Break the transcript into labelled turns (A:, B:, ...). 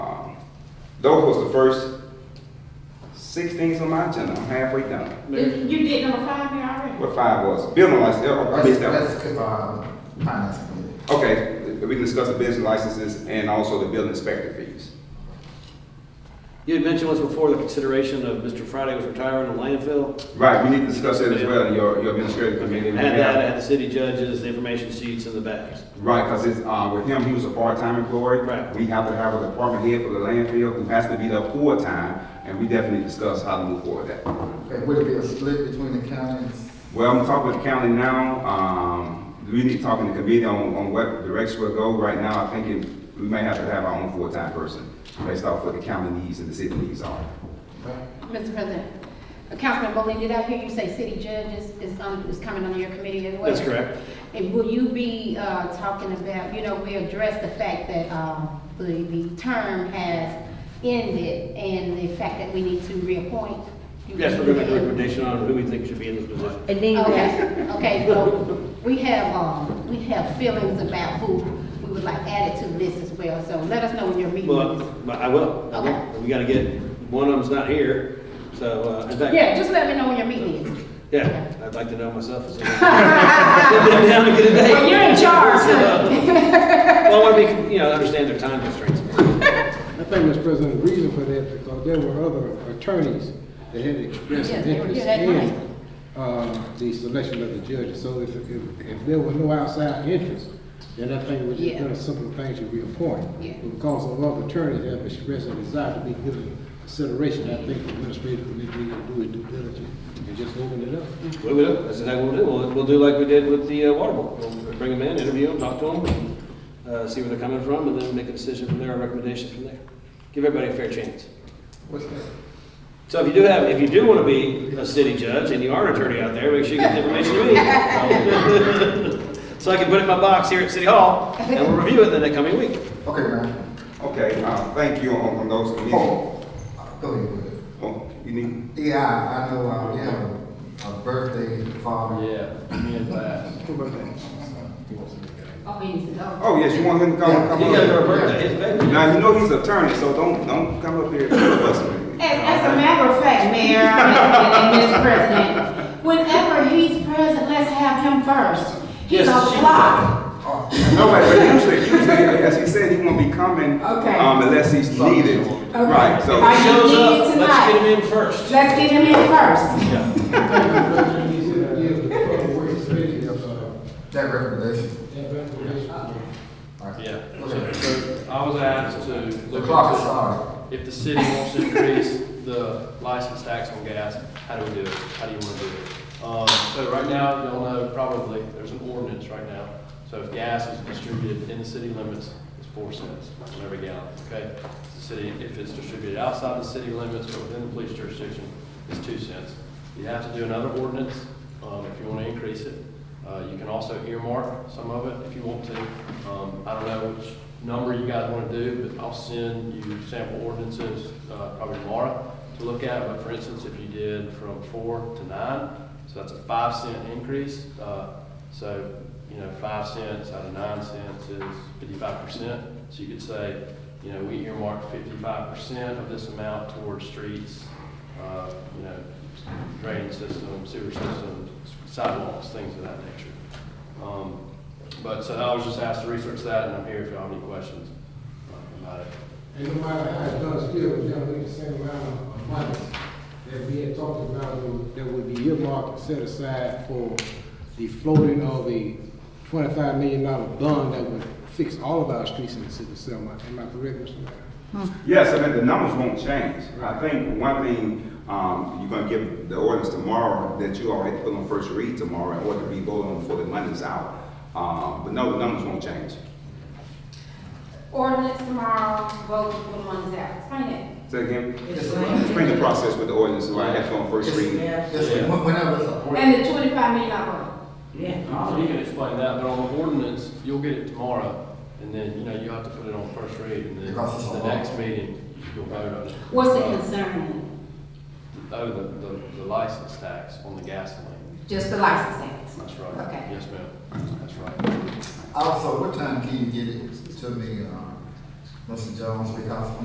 A: Um, Those was the first six things on my agenda. I'm halfway done.
B: You you did number five here already?
A: What five was? Building license, oh, I
C: Let's,
A: missed that one.
C: let's, um, finance committee.
A: Okay, we can discuss the business licenses and also the building inspector fees.
D: You had mentioned once before the consideration of Mr. Friday was retiring the landfill.
A: Right, we need to discuss that as well, in your, your administrative committee.
D: Add that, add the city judges, the information sheets and the bags.
A: Right, because it's, uh, with him, he was a part-time employee.
D: Right.
A: We have to have a department head for the landfill who has to be there full-time, and we definitely discuss how to move forward with that.
C: Okay, would it be a split between the counties?
A: Well, I'm talking with the county now, um, we need to talk in the committee on, on what direction we'll go. Right now, I think it- we may have to have our own full-time person, based off what the county needs and the city needs are.
E: Mr. President, uh, Councilman Bowling, did I hear you say city judges is, um, is coming under your committee as well?
D: That's correct.
E: And will you be, uh, talking about, you know, we addressed the fact that, um, the, the term has ended and the fact that we need to reappoint? You-
D: Yes, we're gonna make a recommendation on who we think should be in this position.
F: And then you guys,
E: Okay, okay, so we have, um, we have feelings about who we would like added to the list as well, so let us know when your meeting is.
D: Well, but I will, I will. We gotta get, one of them's not here, so, uh, in fact.
E: Yeah, just let me know when your meeting is.
D: Yeah, I'd like to know myself. as well. Sit them down and get a date.
E: Well, you're in charge,
D: So, Well, I wanna be, you know, understand their time constraints.
G: I think, Mr. President, the reason for that, because there were other attorneys that had expressed
E: Yeah,
G: an
E: they were-
G: interest
E: yeah, they
G: in, uh, the selection of the judges. So if, if, if there were no outside interest, then I think it was just
E: Yeah.
G: done a simple thing to reappoint.
E: Yeah.
G: But Because of other attorneys that have expressed a desire to be given consideration, I think the administrative committee needs to do it due diligence and just open it up.
D: We will, that's exactly what we'll do. We'll, we'll do like we did with the uh, water board. We'll bring them in, interview them, talk to them, uh, see where they're coming from, and then make a decision from there, a recommendation from there. Give everybody a fair chance.
C: What's that?
D: So if you do have, if you do want to be a city judge and you are an attorney out there, make sure you get the information you need. So I can put it in my box here at City Hall, and we'll review it in the coming week.
C: Okay, man.
A: Okay, uh, thank you on, on those committees.
C: Oh, go ahead with it.
A: Oh, you need,
C: Yeah, I know, uh, we have a- a birthday father.
H: Yeah, me and Bass.
E: Oh, he needs to go.
A: oh, yes, you want him to come, come
D: You guys are a
A: up?
D: birthday, his baby.
A: Now, you know he's attorney, so don't, don't come up here and us.
B: As, as a matter of fact, Mayor, and and Mr. President, whenever he's present, let's have him first. He's
D: Yes,
B: a
D: she-
B: block.
A: No, but but usually, usually, as he said, he won't be coming,
B: Okay.
A: um, unless he's needed. Right, so.
B: Right.
D: He shows up, let's
B: Tonight.
D: get him in first.
B: Let's get him in first.
G: uh,
C: That recommendation. All right.
H: Yeah.
C: Okay.
H: So I was asked to
C: The
H: look
C: clock is
H: into
C: on.
H: if the city wants to increase the license tax on gas, how do we do it? How do you want to do it? Um, so right now, y'all know probably, there's an ordinance right now. So if gas is distributed in the city limits, it's four cents on every gallon, okay? If The city, if it's distributed outside the city limits or within the police jurisdiction, it's two cents. You have to do another ordinance, um, if you want to increase it. Uh, You can also earmark some of it if you want to. Um, I don't know which number you guys want to do, but I'll send you sample ordinances uh, probably tomorrow to look at. But for instance, if you did from four to nine, so that's a five cent increase. Uh, So, you know, five cents out of nine cents is fifty-five percent. So you could say, you know, we earmark fifty-five percent of this amount towards streets, uh, you know, drainage systems, sewer systems, sidewalks, things of that nature. Um, But, so I was just asked to research that, and I'm here if y'all have any questions uh, about it.
G: And no matter how it's done, still, we're gonna need the same amount of money that we had talked about, would- that would be earmarked, and set aside for the floating of the twenty-five million dollar bond that would fix all of our streets in the city of Selma. Am I correct, Mr. Mayor?
A: Yes, I mean, the numbers won't change. I think one thing, um, you're gonna give the ordinance tomorrow that you already put on first read tomorrow in order to be voted on before the money's out. Um, but no, the numbers won't change.
B: Ordinance tomorrow, vote when one's out. Explain it.
A: Say again,
C: It's,
A: explain the process with the ordinance, so I have to on first reading.
C: it's whenever uh, it's a.
B: And the twenty-five million dollar.
H: So Oh, You can explain that, but on the ordinance, you'll get it tomorrow, and then, you know, you have to put it on first read, and then
C: Because it's a
H: the
C: law.
H: next meeting, you'll vote on it.
B: What's it
H: Uh,
B: concerning?
H: Oh, the, the- the license tax on the gasoline.
B: Just the license tax.
H: That's right.
B: Okay.
H: Yes, ma'am. That's right.
C: Also, what time can you get it to me, um, Mr. uh, Jones, because